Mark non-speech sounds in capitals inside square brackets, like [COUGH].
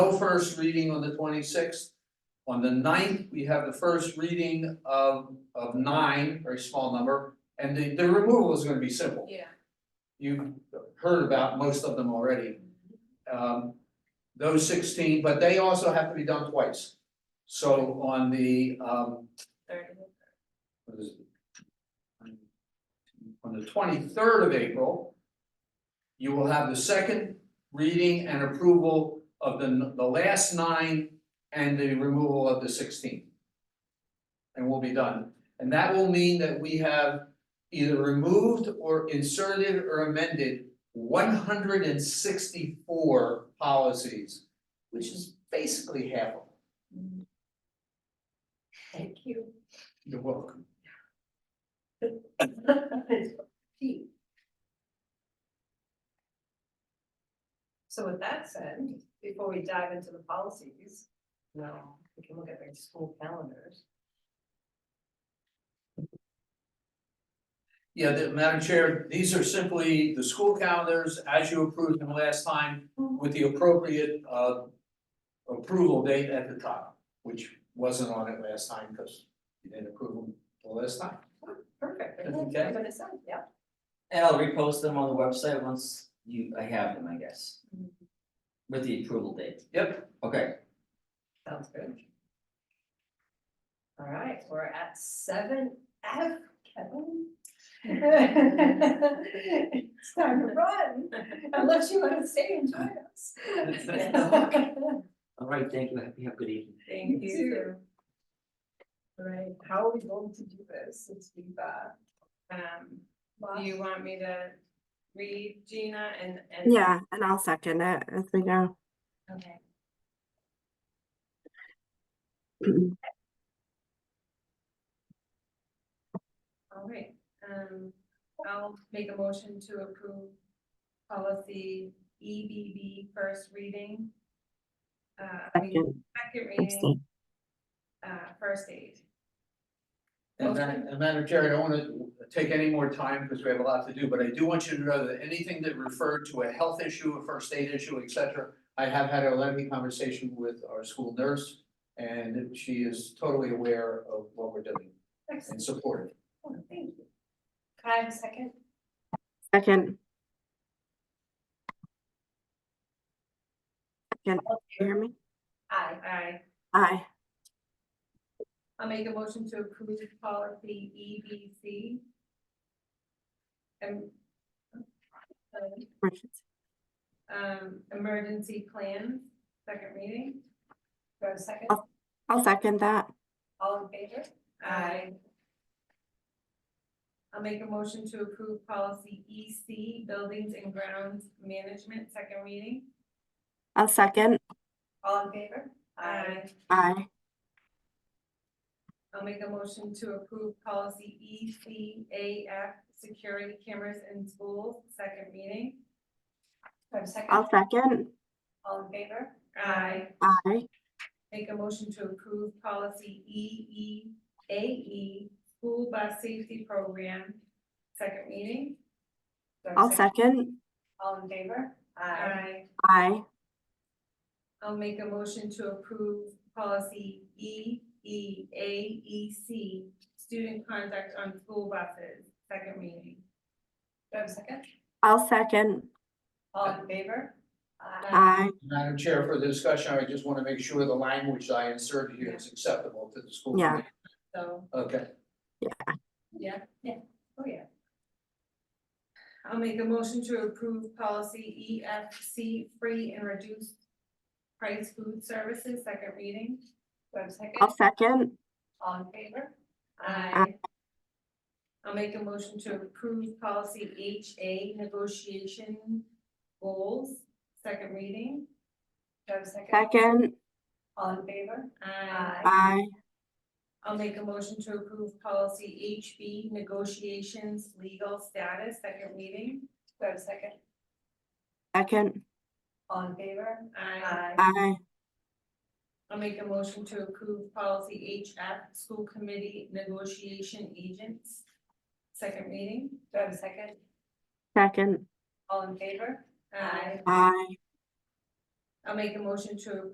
No first reading on the twenty-sixth. On the 9th, we have the first reading of, of nine, very small number, and the, the removal is gonna be simple. Yeah. You've heard about most of them already. Um, those sixteen, but they also have to be done twice. So on the, um, what is it? On the twenty-third of April, you will have the second reading and approval of the, the last nine and the removal of the sixteenth. And we'll be done, and that will mean that we have either removed or inserted or amended one hundred and sixty-four policies, which is basically half of them. Thank you. You're welcome. So with that said, before we dive into the policies, well, we can look at their school calendars. Yeah, the, Madam Chair, these are simply the school calendars as you approved them last time with the appropriate uh. Approval date at the top, which wasn't on it last time because you didn't approve them the last time. Perfect. That's I'm okay. gonna say, yeah. And I'll repost them on the website once you, I have them, I guess. Mhm. With the approval date. Yep. Okay, Sounds good. All right, we're at seven F, Kevin. [LAUGHS] It's time to run, unless you want to stay and join us. [LAUGHS] all right, thank you, have you have a good evening. Thank you. All Right, how are we going to do this since we've, uh, Um, do lost- you want me to read Gina and, and? Yeah, and I'll second it as we go. [CLEARS THROAT] Okay. All right, um, I'll make a motion to approve policy EBB first reading. Uh, I mean, Second, second reading, abstain. uh, first aid. And Ma- Okay. and Madam Chair, I don't wanna take any more time because we have a lot to do, but I do want you to know that anything that referred to a health issue, a first aid issue, et cetera. I have had a lengthy conversation with our school nurse and she is totally aware of what we're doing Excellent, Oh, and supportive. thank you. Can I have a second? Second, you hear me? Aye. Aye. Aye, I'll make a motion to approve policy E B C. And. uh, Richards. Um, emergency plan, second reading. Do I have a second? I'll second that. All in favor? Aye. I'll make a motion to approve policy E C, buildings and grounds management, second reading. I'll second. All in favor? Aye. Aye, I'll make a motion to approve policy E C A F, security cameras in schools, second reading. Do I have a second? I'll second. All in favor? Aye. Aye, Make a motion to approve policy E E A E, school bus safety program, second reading. Do I have a I'll second. All in favor? Aye. Aye, I'll make a motion to approve policy E E A E C, student conduct on school buses, second reading. Do I have a second? I'll second. All in favor? Aye, Madam Chair, for the discussion, I just want to make sure the language that I inserted here is acceptable to the school. Yeah. committee. So, Okay, yeah, yeah, oh, yeah. I'll make a motion to approve policy E F C, free and reduced price food services, second reading. Do I have a second? I'll second. All in favor? Aye. I'll make a motion to approve policy H A negotiation goals, second reading. Do I have a second? Second, All in favor? Aye. aye, I'll make a motion to approve policy H B negotiations legal status, second reading. Do I have a second? second, All in favor? Aye. aye, I'll make a motion to approve policy H F school committee negotiation agents, second reading. Do I have a second? second, All in favor? Aye. aye. I'll make a motion to